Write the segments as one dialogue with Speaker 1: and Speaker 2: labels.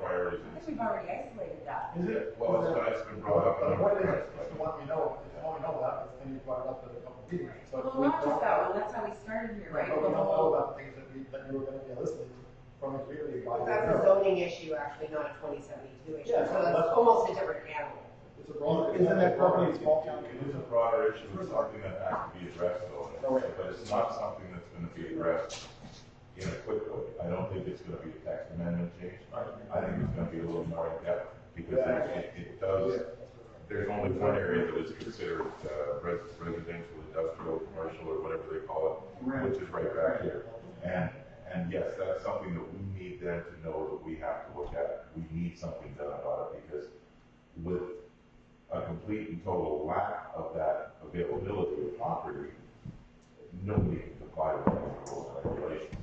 Speaker 1: version.
Speaker 2: I think we've already isolated that.
Speaker 3: Is it?
Speaker 1: Well, it's, it's been brought up.
Speaker 3: But
Speaker 1: a
Speaker 3: the
Speaker 1: number
Speaker 3: point
Speaker 1: of
Speaker 3: is,
Speaker 1: times,
Speaker 3: it's the
Speaker 1: but-
Speaker 3: one we know, it's the one we know about, it's the thing you brought it up at a couple of meetings, so.
Speaker 2: Well,
Speaker 3: we Oh,
Speaker 2: not just
Speaker 3: don't-
Speaker 2: that one, that's how we started here, right?
Speaker 3: But we
Speaker 2: With
Speaker 3: don't
Speaker 2: the
Speaker 3: know
Speaker 2: whole-
Speaker 3: about the things that we, that you were gonna be listening from the community about.
Speaker 4: That's a zoning issue, actually, not a twenty seventy-two issue,
Speaker 3: Yeah,
Speaker 4: so that's
Speaker 3: that's-
Speaker 4: almost a different animal.
Speaker 3: It's a broader.
Speaker 5: Isn't that property small town?
Speaker 1: It is a broader issue, it's something that has to be addressed though, but it's not something that's gonna be addressed in a quick way. I don't think it's gonna be a tax amendment change, I think it's gonna be a little more in depth, because it, it- it does, there's only one area that is considered uh, res- residential, industrial, commercial, or whatever they call it, which is right back here. And, and yes, that's something that we need them to know that we have to look at, we need something done about it, because with a complete and total lack of that availability of property, nobody can comply with those rules and regulations.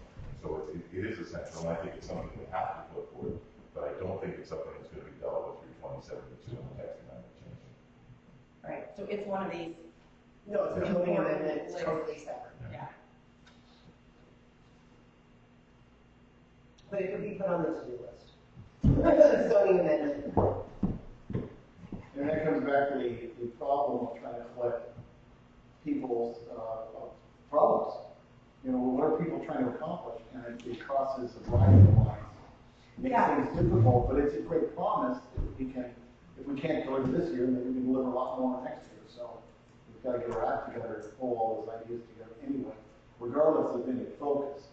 Speaker 1: So it, it- it is essential, and I think it's something we have to look for, but I don't think it's something that's gonna be dealt with through twenty seventy-two and the tax amendment change.
Speaker 2: Right, so it's one of these,
Speaker 4: No, it's a
Speaker 2: Yeah.
Speaker 4: zoning amendment, it's totally separate.
Speaker 2: yeah.
Speaker 4: But it could be put on the to-do list. Zoning amendment.
Speaker 5: And that comes back to the, the problem of trying to collect people's, uh, problems. You know, what are people trying to accomplish? And it- it crosses a variety of lines. Makes
Speaker 2: Yeah.
Speaker 5: things difficult, but it's a great promise if we can, if we can't deliver this year, then we can deliver a lot more next year. So we've got to get our act together, pull all those ideas together anyway, regardless of any focus.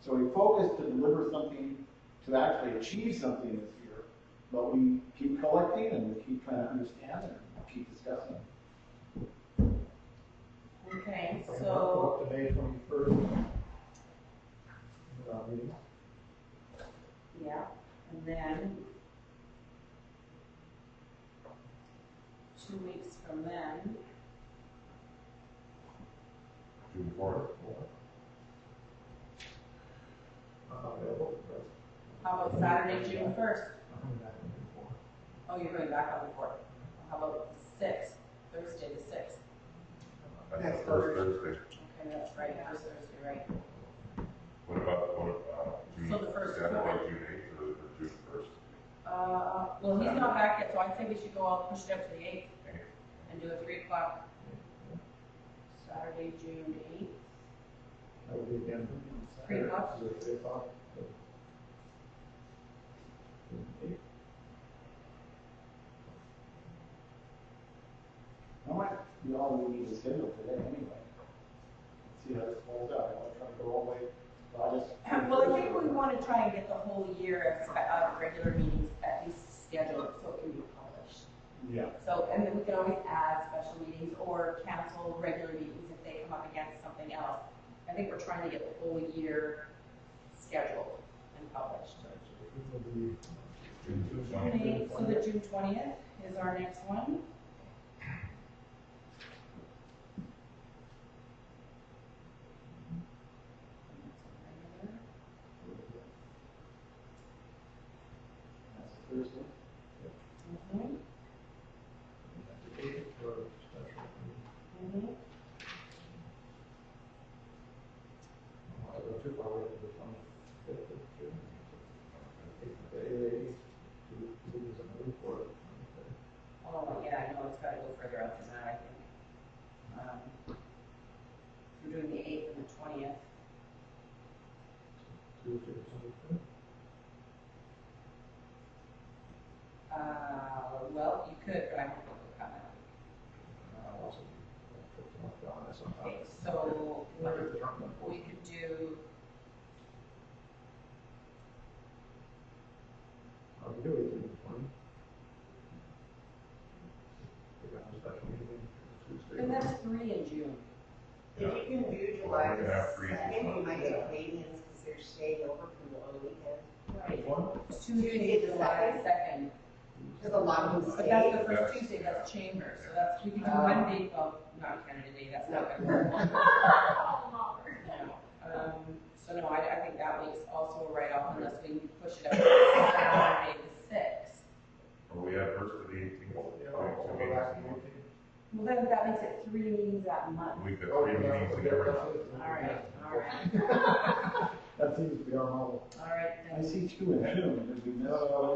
Speaker 5: So we focus to deliver something, to actually achieve something this year, but we keep collecting and we keep trying to understand and keep discussing.
Speaker 2: Okay,
Speaker 3: From
Speaker 2: so,
Speaker 3: Up to May twenty-first. Uh, meeting.
Speaker 2: yeah, and then two weeks from then,
Speaker 1: June fourth.
Speaker 3: Uh, available. right.
Speaker 2: how about Saturday, June first?
Speaker 3: I'm coming back on May fourth.
Speaker 2: Oh, you're going back on the fourth. How about the sixth, Thursday the sixth?
Speaker 1: That's
Speaker 4: Next
Speaker 1: the first Thursday.
Speaker 2: Okay, that's right, first Thursday, right?
Speaker 1: What about, what, uh, June,
Speaker 2: So the first
Speaker 1: Saturday,
Speaker 2: four.
Speaker 1: June eighth or, or June first?
Speaker 2: Uh, well, he's not back yet, so I think we should go all push it up to the eighth
Speaker 1: Okay.
Speaker 2: and do a three o'clock. Saturday, June eighth.
Speaker 3: That would be again.
Speaker 2: Three o'clock.
Speaker 3: Is it Three o'clock. Eight.
Speaker 5: That might be all we need to schedule today anyway. See how this holds out, I want to try to go all the way, I just.
Speaker 2: Well, I think we want to try and get the whole year of, spe- of regular meetings at least scheduled so it can be published.
Speaker 5: Yeah.
Speaker 2: So, and then we can always add special meetings or cancel regular meetings if they come up against something else. I think we're trying to get the whole year scheduled and published.
Speaker 3: It will be
Speaker 1: June
Speaker 2: June
Speaker 1: twentieth.
Speaker 2: eighth, so the June twentieth is our next one.
Speaker 5: That's a Thursday.
Speaker 2: Mhm,
Speaker 3: application for a special meeting.
Speaker 2: mhm.
Speaker 3: I don't want to go too far away from the twenty-fifth of June. Eight days to, to use a move for it.
Speaker 2: Oh, yeah, I know, it's gotta go further out than that, I think. Um, We're doing the eighth and the twentieth.
Speaker 3: Tuesday, twenty-fifth.
Speaker 2: Uh, well, you could, but I won't be able to come out.
Speaker 3: Uh, also, fifteen of August.
Speaker 2: Okay, so
Speaker 3: Where is the term?
Speaker 2: we could do,
Speaker 3: How do Oh, you do it, June twenty? We got a special meeting Tuesday.
Speaker 2: and that's three in June.
Speaker 4: If you can do
Speaker 1: Well,
Speaker 4: July
Speaker 1: we're gonna have freezes
Speaker 4: second, you
Speaker 1: on-
Speaker 4: might get Canadians, because they're staying over from the long weekend.
Speaker 2: Right.
Speaker 3: One?
Speaker 2: Tuesday, July second.
Speaker 4: There's a lot of them
Speaker 2: But that's
Speaker 4: staying.
Speaker 2: the first Tuesday, that's chamber, so that's, we could do Monday, well, not Canada Day, that's not gonna work. No. Um, so no, I, I think that week's also a write-off unless we push it up to Saturday the sixth.
Speaker 1: Or we have first to the eighteenth.
Speaker 3: Yeah, I'll go Oh, back to the eighteenth.
Speaker 2: Well, then that makes it three meetings that month.
Speaker 1: We've
Speaker 3: Oh,
Speaker 5: Oh,
Speaker 1: got three meetings in every month.
Speaker 2: All right, all right,
Speaker 3: That seems to be our model.
Speaker 2: all right,
Speaker 5: I
Speaker 2: thanks.
Speaker 5: see two in June, but we know